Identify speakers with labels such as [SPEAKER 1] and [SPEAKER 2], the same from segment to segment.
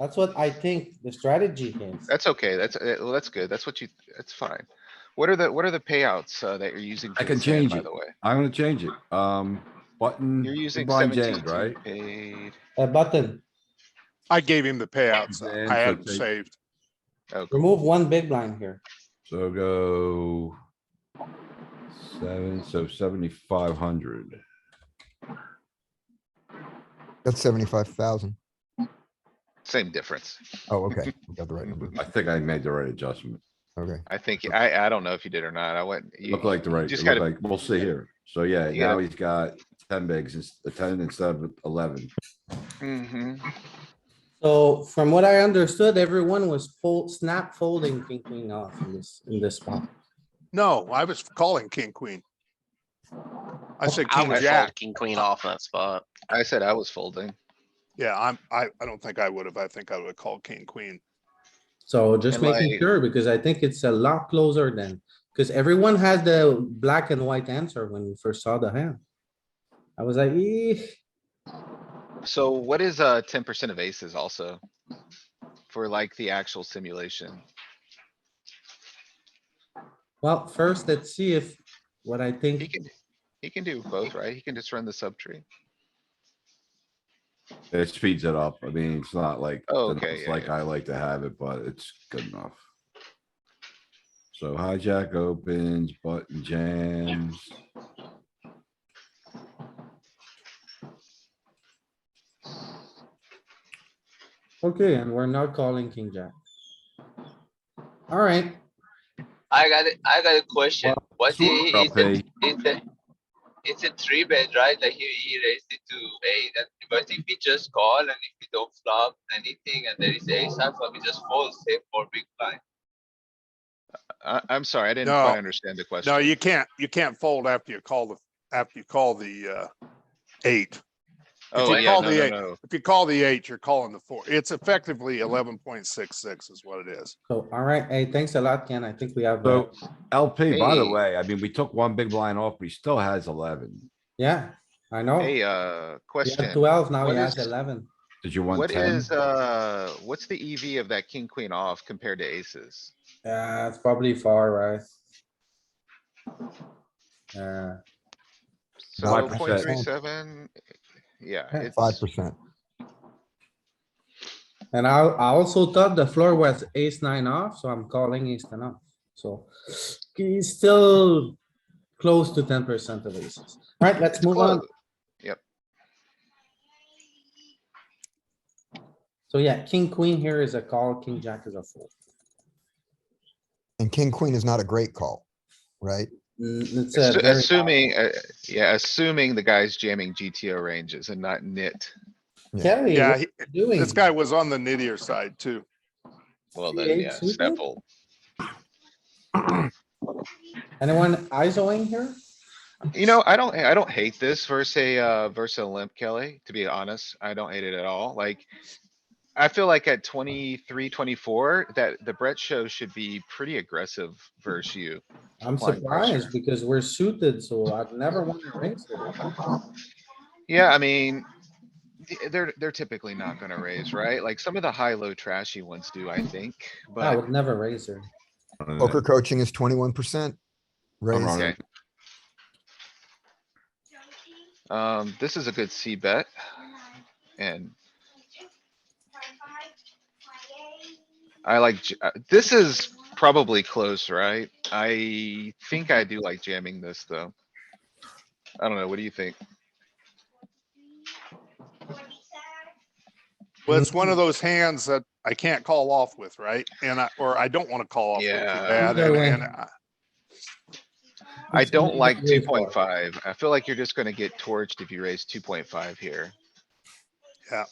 [SPEAKER 1] That's what I think the strategy is.
[SPEAKER 2] That's okay. That's, uh, well, that's good. That's what you, that's fine. What are the, what are the payouts, uh, that you're using?
[SPEAKER 3] I
[SPEAKER 2] for
[SPEAKER 3] can
[SPEAKER 2] this hand,
[SPEAKER 3] change
[SPEAKER 2] By
[SPEAKER 3] it.
[SPEAKER 2] the way,
[SPEAKER 3] I'm gonna change it. Um, button.
[SPEAKER 2] you're using
[SPEAKER 3] blind
[SPEAKER 2] seventeen
[SPEAKER 3] jam,
[SPEAKER 2] to
[SPEAKER 3] right?
[SPEAKER 2] paid.
[SPEAKER 1] A button,
[SPEAKER 4] I gave him the payouts.
[SPEAKER 3] Man, so
[SPEAKER 4] I had them
[SPEAKER 3] take-
[SPEAKER 4] saved.
[SPEAKER 2] Okay,
[SPEAKER 1] remove one big blind here.
[SPEAKER 3] So go. Seven, so seventy-five hundred.
[SPEAKER 5] That's seventy-five thousand.
[SPEAKER 2] same difference.
[SPEAKER 5] Oh, okay. We Got the right number.
[SPEAKER 3] I think I made the right adjustment.
[SPEAKER 5] Okay.
[SPEAKER 2] I think, I, I don't know if you did or not. I went. you-
[SPEAKER 3] Looked like the right,
[SPEAKER 2] just
[SPEAKER 3] it looked
[SPEAKER 2] gotta-
[SPEAKER 3] like, we'll see here. So yeah,
[SPEAKER 2] You gotta-
[SPEAKER 3] now he's got ten bigs, ins- ten instead of eleven.
[SPEAKER 2] Mhm.
[SPEAKER 1] So from what I understood, everyone was fold, snap folding, king, queen off in this, in this spot.
[SPEAKER 4] No, I was calling king, queen.
[SPEAKER 2] Oh,
[SPEAKER 4] I said
[SPEAKER 6] I
[SPEAKER 4] king,
[SPEAKER 6] would fold
[SPEAKER 4] jack.
[SPEAKER 6] king, queen off in that spot.
[SPEAKER 2] I said I was folding.
[SPEAKER 4] Yeah, I'm, I, I don't think I would have. I think I would have called king, queen.
[SPEAKER 1] So just
[SPEAKER 2] Am
[SPEAKER 1] making
[SPEAKER 2] I-
[SPEAKER 1] sure, because I think it's a lot closer than, because everyone had the black and white answer when we first saw the hand. I was like, eh,
[SPEAKER 2] So what is, uh, ten percent of aces also? For like the actual simulation?
[SPEAKER 1] well, first, let's see if, what I
[SPEAKER 2] He
[SPEAKER 1] think,
[SPEAKER 2] can, he can do both, right? He can just run the subtree.
[SPEAKER 3] It speeds it up. I mean, it's not like,
[SPEAKER 2] Oh,
[SPEAKER 3] the
[SPEAKER 2] okay,
[SPEAKER 3] numbers
[SPEAKER 2] yeah,
[SPEAKER 3] like
[SPEAKER 2] yeah.
[SPEAKER 3] I like to have it, but it's good enough. So hijack opens, button jams.
[SPEAKER 1] okay, and we're not calling king jack. Alright,
[SPEAKER 7] I got it. I got a question.
[SPEAKER 3] Well,
[SPEAKER 7] What
[SPEAKER 3] sure,
[SPEAKER 7] i-
[SPEAKER 3] I'll
[SPEAKER 7] is it?
[SPEAKER 3] pay.
[SPEAKER 7] It's a, it's a three bet, right? Like he, he raised it to eight. And but if we just call and if we don't flop anything and there is ace high flop, we just fold save for big blind.
[SPEAKER 2] I, I'm sorry, I didn't
[SPEAKER 4] No.
[SPEAKER 2] quite understand the question.
[SPEAKER 4] No, you can't, you can't fold after you call the, after you call the, uh, eight.
[SPEAKER 2] Oh,
[SPEAKER 4] you
[SPEAKER 2] yeah,
[SPEAKER 4] call
[SPEAKER 2] no,
[SPEAKER 4] the
[SPEAKER 2] no,
[SPEAKER 4] eight-
[SPEAKER 2] no.
[SPEAKER 4] If you call the eight, you're calling the four. It's effectively eleven point six six is what it is.
[SPEAKER 1] so, alright, hey, thanks a lot, Ken, I think we have, uh,
[SPEAKER 3] So LP, by the
[SPEAKER 2] Hey.
[SPEAKER 3] way, I mean, we took one big blind off, but he still has eleven.
[SPEAKER 1] yeah, I
[SPEAKER 3] Oh.
[SPEAKER 1] know.
[SPEAKER 2] Hey, uh,
[SPEAKER 1] We had
[SPEAKER 2] question.
[SPEAKER 1] twelve, now we
[SPEAKER 2] What
[SPEAKER 1] have
[SPEAKER 2] is-
[SPEAKER 1] eleven.
[SPEAKER 3] Did you want
[SPEAKER 2] What
[SPEAKER 3] ten?
[SPEAKER 2] is, uh, what's the EV of that king, queen off compared to aces?
[SPEAKER 1] Yeah, it's probably far, right? Uh,
[SPEAKER 2] So
[SPEAKER 5] Five
[SPEAKER 2] point
[SPEAKER 3] percent.
[SPEAKER 2] three seven, yeah,
[SPEAKER 1] Yeah,
[SPEAKER 2] it's,
[SPEAKER 5] Five percent.
[SPEAKER 1] and I, I also thought the floor was ace nine off, so I'm calling ace ten off, so. He's still close to ten percent of aces. Alright, let's
[SPEAKER 2] it's
[SPEAKER 1] move on.
[SPEAKER 2] close.
[SPEAKER 1] So yeah, king, queen here is a call, king, jack is a fold.
[SPEAKER 5] And king, queen is not a great call, right?
[SPEAKER 1] Mm, it's a
[SPEAKER 2] Assu-
[SPEAKER 1] very-
[SPEAKER 2] Assuming, uh, yeah, assuming the guy's jamming GTO ranges and not knit.
[SPEAKER 1] Kelly,
[SPEAKER 4] Yeah,
[SPEAKER 1] what
[SPEAKER 4] he-
[SPEAKER 1] you doing?
[SPEAKER 4] this guy was on the nittier side too.
[SPEAKER 2] Well,
[SPEAKER 1] Three
[SPEAKER 2] then,
[SPEAKER 1] eight
[SPEAKER 2] yeah,
[SPEAKER 1] suited?
[SPEAKER 2] snuffle.
[SPEAKER 1] Anyone ISOing here?
[SPEAKER 2] You know, I don't, I don't hate this versus a, uh, versus a limp Kelly, to be honest. I don't hate it at all. Like, I feel like at 23, 24, that the Brett show should be pretty aggressive versus you.
[SPEAKER 1] I'm
[SPEAKER 2] Applying
[SPEAKER 1] surprised
[SPEAKER 2] pressure.
[SPEAKER 1] because we're suited, so I've never won a raise. here.
[SPEAKER 2] Yeah, I mean, th- they're, they're typically not gonna raise, right? Like some of the high-low trashy ones do, I think,
[SPEAKER 1] I
[SPEAKER 2] but
[SPEAKER 1] would never raise her.
[SPEAKER 3] Mm.
[SPEAKER 5] Poker coaching is twenty-one percent.
[SPEAKER 3] I'm
[SPEAKER 5] Raise.
[SPEAKER 3] on it.
[SPEAKER 2] Um, this is a good C bet. And. I like, j- uh, this is probably close, right? I think I do like jamming this, though. I don't know, what do you think?
[SPEAKER 4] Well, it's one of those hands that I can't call off with, right? And I, or I don't want to call off with too
[SPEAKER 2] Yeah.
[SPEAKER 4] bad.
[SPEAKER 1] Either
[SPEAKER 4] And,
[SPEAKER 1] way.
[SPEAKER 4] and I-
[SPEAKER 2] I
[SPEAKER 1] It's
[SPEAKER 2] don't
[SPEAKER 1] easy
[SPEAKER 2] like
[SPEAKER 1] to raise
[SPEAKER 2] two
[SPEAKER 1] for.
[SPEAKER 2] point five. I feel like you're just gonna get torched if you raise two point five here.
[SPEAKER 4] Yeah.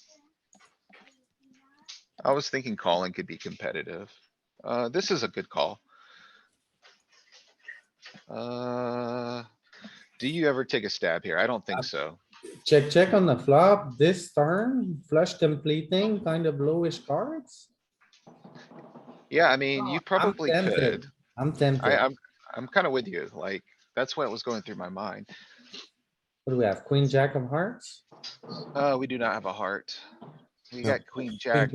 [SPEAKER 2] I was thinking calling could be competitive. Uh, this is a good call. Uh, do you ever take a stab here? I don't think so.
[SPEAKER 1] Check, check on the flop, this turn, flush completing, kind of lowish cards.
[SPEAKER 2] Yeah, I mean, you
[SPEAKER 1] I'm
[SPEAKER 2] probably
[SPEAKER 1] tempted.
[SPEAKER 2] could.
[SPEAKER 1] I'm
[SPEAKER 2] I,
[SPEAKER 1] tempted.
[SPEAKER 2] I'm, I'm kinda with you. Like, that's what was going through my mind.
[SPEAKER 1] What do we have? Queen, jack of hearts?
[SPEAKER 2] Uh, we do not have a heart. We
[SPEAKER 5] No.
[SPEAKER 2] got queen, jack.